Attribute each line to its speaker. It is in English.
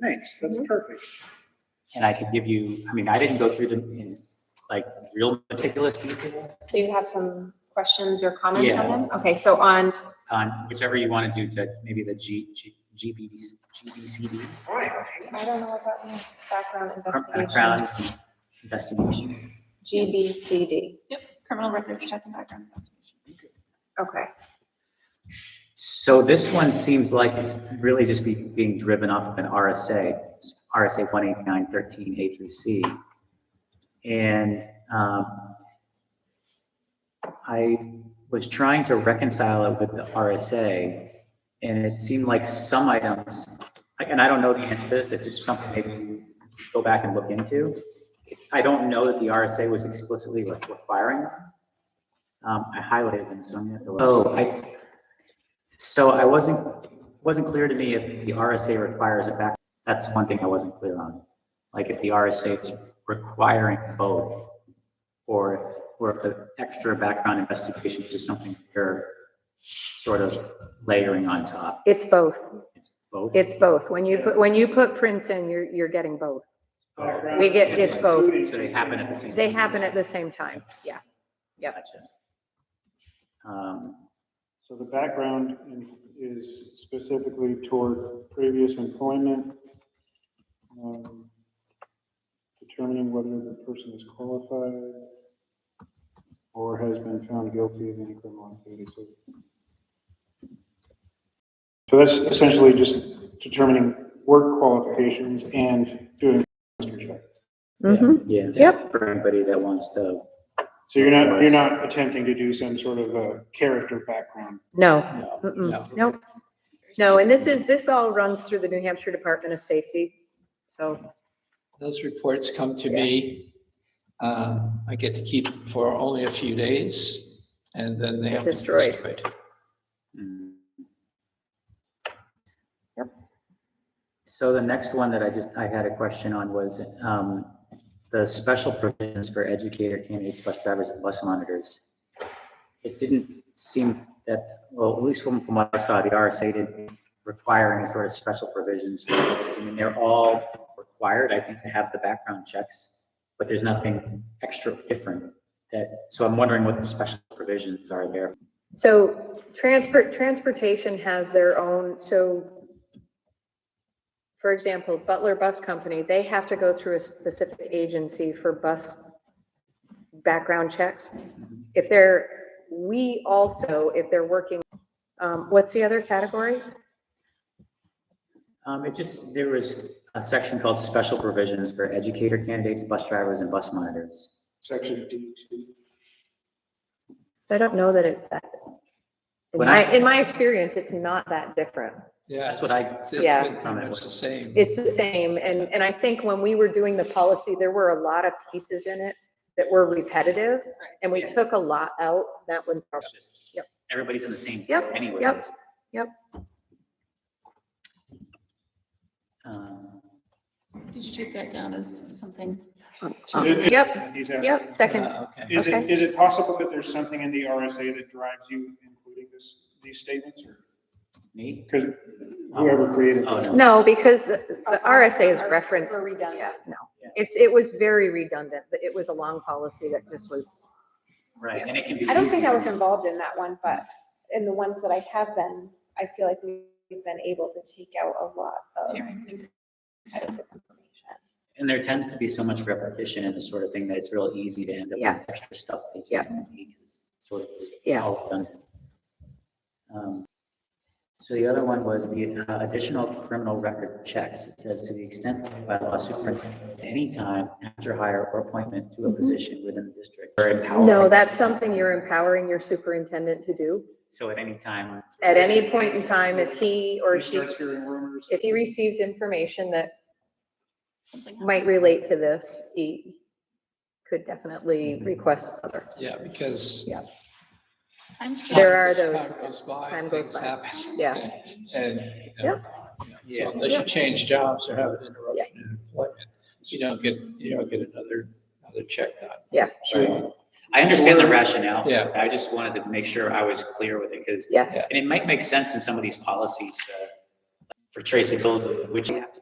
Speaker 1: Thanks, that's perfect.
Speaker 2: And I could give you, I mean, I didn't go through them in like real meticulous detail
Speaker 3: So you have some questions or comments
Speaker 2: Yeah.
Speaker 3: on them? Okay, so on,
Speaker 2: on whichever you want to do to maybe the G, G, GBDC GBCD,
Speaker 1: All right.
Speaker 3: I don't know what that means, background investigation,
Speaker 2: background investigation.
Speaker 3: GBCD,
Speaker 4: Criminal records check and background investigation.
Speaker 3: okay.
Speaker 2: So this one seems like it's really just be, being driven off of an RSA, RSA one eight nine thirteen A through C. And, um, I was trying to reconcile it with the RSA, and it seemed like some items, and I don't know the answer to this, it's just something maybe you go back and look into. I don't know that the RSA was explicitly like requiring them. Um, I highlighted them, so I'm gonna have to. look. Oh, I, so I wasn't, wasn't clear to me if the RSA requires a back, that's one thing I wasn't clear on. Like if the RSA is requiring both, or, or if the extra background investigation is just something you're sort of layering on top.
Speaker 5: It's both.
Speaker 2: It's both.
Speaker 5: It's both. When you put, when you put prints in, you're, you're getting both.
Speaker 1: Background
Speaker 5: We get- it's both.
Speaker 2: So they happen at the same.
Speaker 5: They happen at the same time. Yeah. yep.
Speaker 2: Gotcha. Um,
Speaker 6: So the background in- is specifically toward previous employment, um, determining whether the person is qualified or has been found guilty of any criminal activity. So so that's essentially just determining work qualifications and doing a history check.
Speaker 5: Mhm.
Speaker 2: Yeah.
Speaker 5: Yep.
Speaker 2: For anybody that wants to,
Speaker 6: So you're not, you're not attempting to do some sort of a character background.
Speaker 5: No,
Speaker 6: No.
Speaker 5: Mm-mm. nope. No, and this is, this all runs through the New Hampshire Department of Safety. So,
Speaker 7: Those reports come to me. Um, I get to keep for only a few days and then they have. to be
Speaker 5: Destroyed.
Speaker 2: mm. So the next one that I just, I had a question on was, um, the special provisions for educator candidates, bus drivers and bus monitors. It didn't seem that, well, at least from, from what I saw, the RSA didn't require any sort of special provisions. for those. I mean, they're all required, I think, to have the background checks, but there's nothing extra different that, so I'm wondering what the special provisions are there
Speaker 5: so transport, transportation has their own, so for example, Butler Bus Company, they have to go through a specific agency for bus background checks. If they're, we also, if they're working, um, what's the other category?
Speaker 2: Um, it just, there was a section called special provisions for educator candidates, bus drivers and bus monitors.
Speaker 1: Section D two.
Speaker 5: So I don't know that it's that. In
Speaker 2: When
Speaker 5: my,
Speaker 2: I-
Speaker 5: in my experience, it's not that different.
Speaker 7: Yeah.
Speaker 2: That's what I,
Speaker 7: It's
Speaker 5: Yeah.
Speaker 7: been pretty much the same.
Speaker 5: It's the same, and, and I think when we were doing the policy, there were a lot of pieces in it that were repetitive, and we took a lot out, that one.
Speaker 2: it's just, everybody's in the same
Speaker 5: Yep, yep,
Speaker 2: anyways.
Speaker 5: yep.
Speaker 2: Um,
Speaker 4: Did you take that down as something?
Speaker 5: Yep,
Speaker 6: He's asking-
Speaker 5: yep, second,
Speaker 7: Ah, Okay.
Speaker 6: Is it,
Speaker 5: Okay.
Speaker 6: is it possible that there's something in the RSA that drives you including this, these statements or?
Speaker 2: Me?
Speaker 6: Because whoever created
Speaker 2: Oh,
Speaker 6: this.
Speaker 5: no, because the the RSA is
Speaker 3: Are-
Speaker 5: referenced.
Speaker 3: are redundant.
Speaker 5: Yeah, No,
Speaker 2: Yeah.
Speaker 5: it's, it was very redundant, but it was a long policy that just was,
Speaker 2: Right, and it can be.
Speaker 3: I don't think I was
Speaker 2: easy.
Speaker 3: involved in that one, but in the ones that I have been, I feel like we've been able to take out a lot of
Speaker 4: Yeah, I think
Speaker 3: types of information.
Speaker 2: And there tends to be so much repetition in this sort of thing that it's real easy to end up
Speaker 5: Yeah.
Speaker 2: with extra stuff. that you
Speaker 5: Yeah.
Speaker 2: don't need 'cause it's Sort of just
Speaker 5: Yeah.
Speaker 2: all redundant. Um, So the other one was the uh, additional criminal record checks. It says to the extent by law superintendent, at any time after hire or appointment to a position within the district. or empower-
Speaker 5: Mm-hmm. no, that's something you're empowering your superintendent to do.
Speaker 2: So at any time,
Speaker 5: At any point in time, if he or
Speaker 6: He
Speaker 5: she,
Speaker 6: starts hearing rumors.
Speaker 5: if he receives information that
Speaker 4: something.
Speaker 5: might relate to this, he could definitely request other.
Speaker 7: Yeah, because.
Speaker 5: Yeah.
Speaker 4: Times change.
Speaker 5: There are those-
Speaker 7: Time goes by,
Speaker 5: time goes
Speaker 7: things
Speaker 5: by.
Speaker 7: happen.
Speaker 5: Yeah.
Speaker 7: And. you know,
Speaker 2: Yeah.
Speaker 7: So unless you change jobs or have an interruption in employment, you don't get, you don't get another, another check done.
Speaker 5: Yeah.
Speaker 7: So,
Speaker 2: I understand the rationale.
Speaker 7: Yeah.
Speaker 2: I just wanted to make sure I was clear with it because
Speaker 5: Yes,
Speaker 2: And it might make sense in some of these policies to, for traceability, which you have